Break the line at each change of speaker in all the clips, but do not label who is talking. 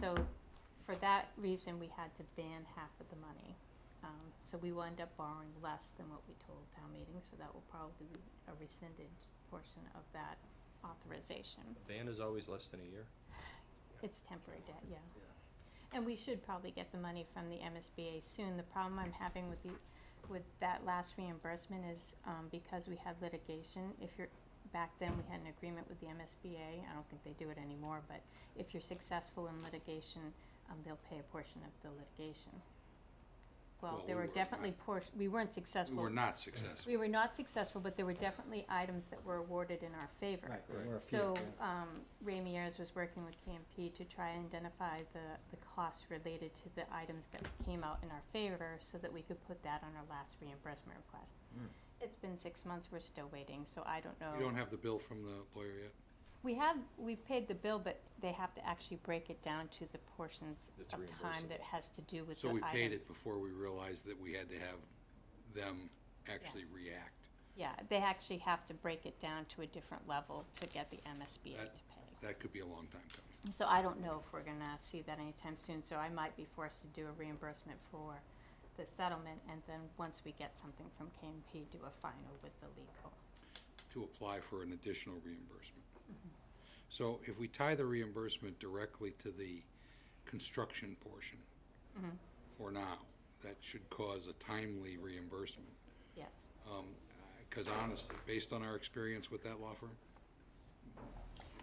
So for that reason, we had to ban half of the money. Um, so we will end up borrowing less than what we told town meeting, so that will probably be a rescinded portion of that authorization.
A Ban is always less than a year.
It's temporary debt, yeah. And we should probably get the money from the MSBA soon. The problem I'm having with the, with that last reimbursement is, um, because we had litigation, if you're, back then, we had an agreement with the MSBA, I don't think they do it anymore, but if you're successful in litigation, um, they'll pay a portion of the litigation. Well,
Well,
there
we
were
were
definitely
not-
portion, we weren't
We
successful.
were not successful.
We were not successful, but there were definitely items that were awarded in our favor.
Right, there
Right.
were a few,
So,
yeah.
um, Ramirez was working with KMP to try and identify the, the costs related to the items that came out in our favor so that we could put that on our last reimbursement request. It's been six months, we're still waiting, so I don't know.
Hmm. You don't have the bill from the lawyer yet?
We have, we've paid the bill, but they have to actually break it down to the portions
That's
of time that
reimbursable.
has to do with the
So
items.
we paid it before we realized that we had to have them actually react.
Yeah, they actually have to break it down to a different level to get the MSBA to
That-
pay.
That could be a long time coming.
So I don't know if we're gonna see that anytime soon, so I might be forced to do a reimbursement for the settlement, and then once we get something from KMP, do a final with the legal.
to apply for an additional reimbursement.
Mm-hmm.
So if we tie the reimbursement directly to the construction portion
Mm-hmm.
for now, that should cause a timely reimbursement.
Yes.
Because honestly, based on our experience with that law firm,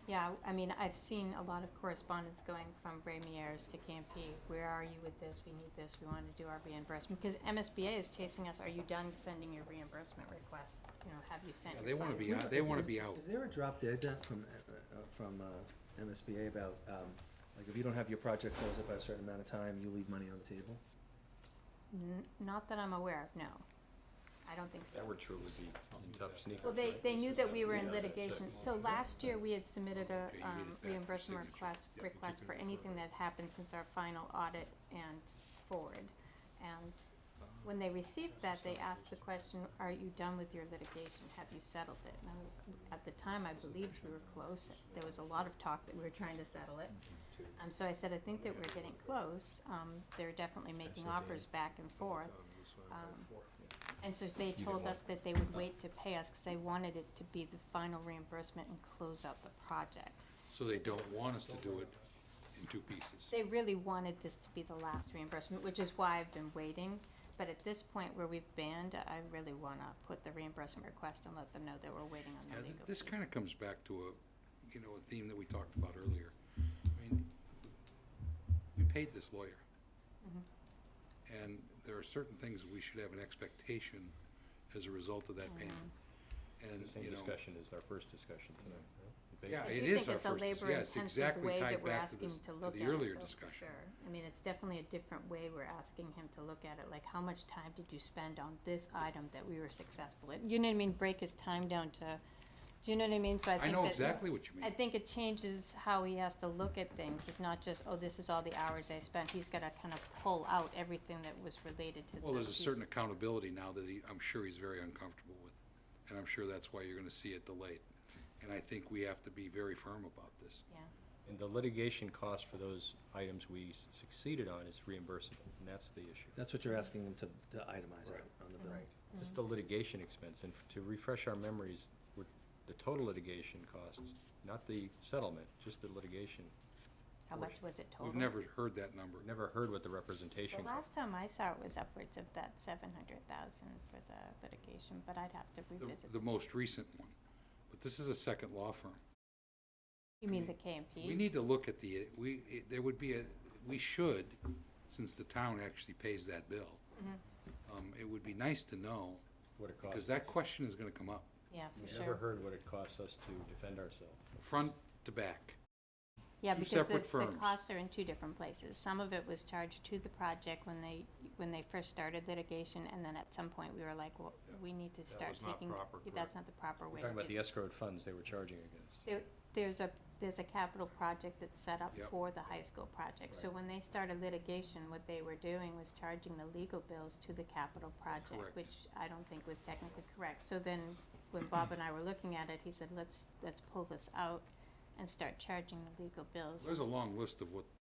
Yeah, I mean, I've seen a lot of correspondence going from Ramier's to KMP. Where are you with this? We need this. We want to do our reimbursement. Because MSBA is chasing us. Are you done sending your reimbursement requests? You know, have you sent?
Yeah,
your
they wanna
uh,
final?"
be out- they
Is-
wanna
is-
be out.
Is there a drop dead uh, from, uh, uh, from uh, MSBA about, um, like, if you don't have your project closed up by a certain amount of time, you leave money on the table?
N- Not that I'm aware of, no. I don't think so.
That were true would be in tough sneakers.
Well, they,
right?
they
This
knew
was
that
a-
we were in
yeah, that's it.
litigation, so last year we had submitted a,
Okay, you
um,
need it back for
reimbursement
signature.
request,
Yeah, you
request
keep
for
it
anything that happened since our final audit and forward. And when they received that, they asked the question, are you done with your litigation, have you settled it? And I- at the time, I believed we were close, there was a lot of talk that we were trying to settle it.
Mm-hmm.
Um, so I said, I think that we're getting close, um, they're definitely making offers back and forth. Um, and so they told us that they would wait to pay us because they wanted it to be the final reimbursement and close out the project.
so they don't want us to do it in two pieces.
They really wanted this to be the last reimbursement, which is why I've been waiting. But at this point where we've banned, I really want to put the reimbursement request and let them know that we're waiting on
Yeah,
the
th-
legal.
This
fees.
kind of comes back to a, you know, a theme that we talked about earlier. I mean, we paid this lawyer.
Mm-hmm.
And there are certain things we should have an expectation as a result of that payment. And,
Mm-hmm. The same
you know,
discussion is our first discussion tonight. right?
Yeah,
I
it
do
is
think
our
it's a
first dis- yeah, it's
labor-intensive
exactly
way
tied
that we're
back to
asking
this-
to
to
look at
the
it,
earlier
though, for
discussion.
Sure, I mean, it's definitely a different way we're asking him to look at it, like how much time did you spend on this item that we were successful in? You know what I mean, break his time down to, do you know what I mean, so I think
I
that.
know exactly what you
I
mean.
think it changes how he has to look at things, it's not just, oh, this is all the hours I spent, he's gotta kind of pull out everything that was related to the.
Well, there's a
piece.
certain accountability now that he, I'm sure he's very uncomfortable with. And I'm sure that's why you're gonna see it delayed. And I think we have to be very firm about this.
Yeah,
And the litigation cost for those items we s- succeeded on is reimbursable, and that's the issue.
That's what you're asking them to, to itemize out on the bill.
Right,
Mm-hmm.
just the litigation expense, and f- to refresh our memories, with the total litigation costs, not the settlement, just the litigation.
how
We're-
much was it total?
We've never heard that number.
We've never heard what the
The
representation cost.
last time I saw it was upwards of that seven hundred thousand for the litigation, but I'd have to
the,
revisit.
the most recent one. But this is a second law firm.
You mean the KMP?
We need to look at the, we, it- there would be a, we should, since the town actually pays that bill. Um, it would be nice to know,
What it costs.
because that question is gonna come up,
Yeah,
We've
for
never
sure.
heard what it costs us to defend ourselves.
front to back.
Yeah,
two
because
separate
the, the
firms.
costs are in two different places. Some of it was charged to the project when they, when they first started litigation, and then at some point, we were like, well, we need to start
was not
taking,
proper,
that's not the proper way
We're
to
talking about
do
the escrowed funds they were charging against.
There, there's a, there's a capital project that's set up
Yep.
for the high school project. So
Right.
when they started litigation, what they were doing was charging the legal bills to the capital project,
Correct.
which I don't think was technically correct. So then, when Bob and I were looking at it, he said, let's, let's pull this out and start charging the legal bills.
There's a long list of what